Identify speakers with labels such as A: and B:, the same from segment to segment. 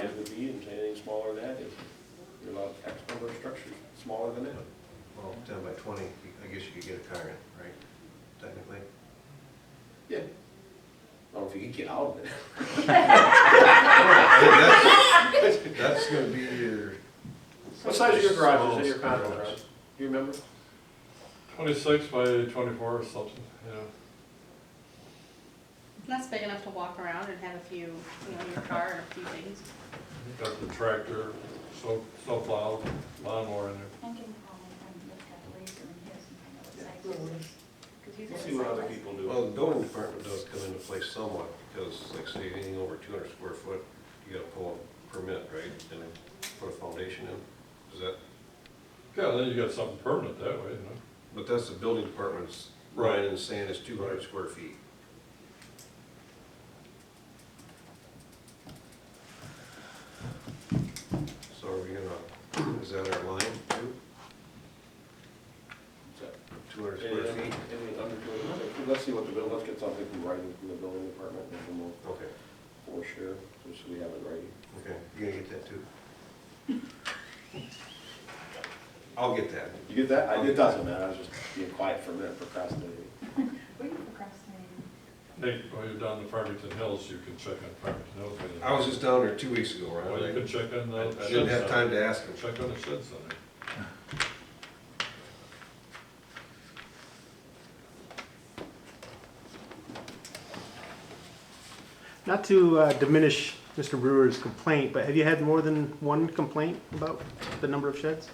A: it would be, and anything smaller than that is, you're allowed X number of structures smaller than that.
B: Well, ten by twenty, I guess you could get a car in, right, technically?
A: Yeah. I don't know if you could get out of it.
B: That's that's gonna be your,
A: What size is your garage, is in your condo garage? Do you remember?
C: Twenty-six by twenty-four or something, yeah.
D: That's big enough to walk around and have a few, you know, your car and a few things.
C: Got the tractor, snow, snowplow, lawnmower in there.
E: I can call him and look up laser and his and find out what size
A: Yeah.
E: this is. 'Cause he's
A: We'll
E: got
A: see what
E: a
A: other
E: size.
A: people do.
B: well, the building department does come into play somewhat, because like say anything over two hundred square foot, you gotta pull a permit, right? And then put a foundation in, is that,
C: Yeah, then you got something permanent that way, you know.
B: but that's the building department's line in the sand is two hundred square feet. So are we gonna, is that our line too?
A: So,
B: Two hundred
A: Anything
B: square
A: under
B: feet?
A: anything under 200? Let's see what the bill, let's get something from writing from the building department, and then
B: Okay,
A: we'll for sure, just so we have it ready.
B: okay, you're gonna get that too? I'll get that.
A: You get that? I- It doesn't matter, I was just being quiet for a minute procrastinating.
E: Were you procrastinating?
C: Nate, while you're down to Farmington Hills, you can check on Farmington Hills. when
B: I was just down there two weeks ago,
C: you- Well, you
B: right?
C: can check on the.
B: I didn't have time to ask him.
C: Check on the shed center.
F: Not to uh, diminish Mr. Brewer's complaint, but have you had more than one complaint about the number of sheds?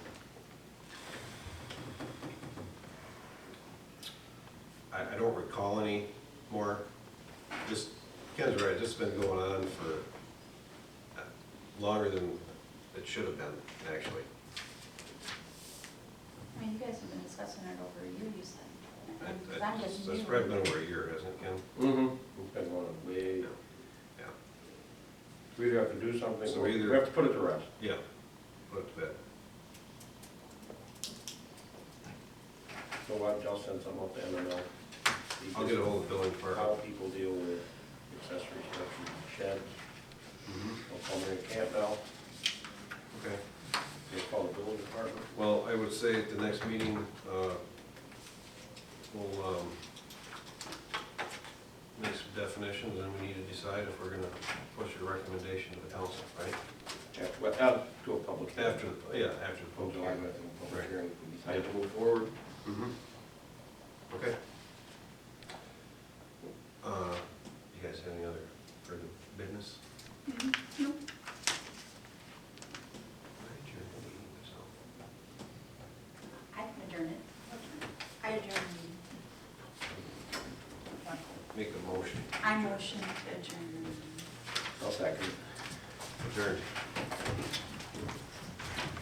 B: I, I don't recall any more. Just, Ken's right, this has been going on for uh, longer than it should have been, actually.
E: I mean, you guys have been discussing it over a year, you said.
B: I-
E: And- 'cause
B: I-
E: I'm just
B: That's
E: new.
B: probably been over a year, hasn't it, Ken?
A: Mm-hmm. Depends on the way.
B: Yeah,
A: We either have to do something,
B: So
A: or we
B: either-
A: have to put it to rest.
B: yeah, put it to bed.
A: So I'll I'll send some up to MML.
B: I'll get ahold of the building department.
A: How people deal with accessory structures, sheds,
C: Oh.
B: Mhm,
A: or pulmonary camp now,
B: Okay,
A: they call the building department.
B: well, I would say at the next meeting, uh, we'll, um, make some definitions, and we need to decide if we're gonna push your recommendation to the council, right?
A: After, well, out to a public. hearing.
B: After, the- yeah, after the
A: Until I
B: public.
A: go to the public
B: Right.
A: hearing, we decide to move forward.
B: Mhm. Mm-hmm. Okay. Uh, you guys have any other further business? All right, you're gonna leave this out.
E: I can adjourn it. I adjourn the meeting.
B: Make a motion,
E: I motion to adjourn.
A: I'll second.
B: adjourn.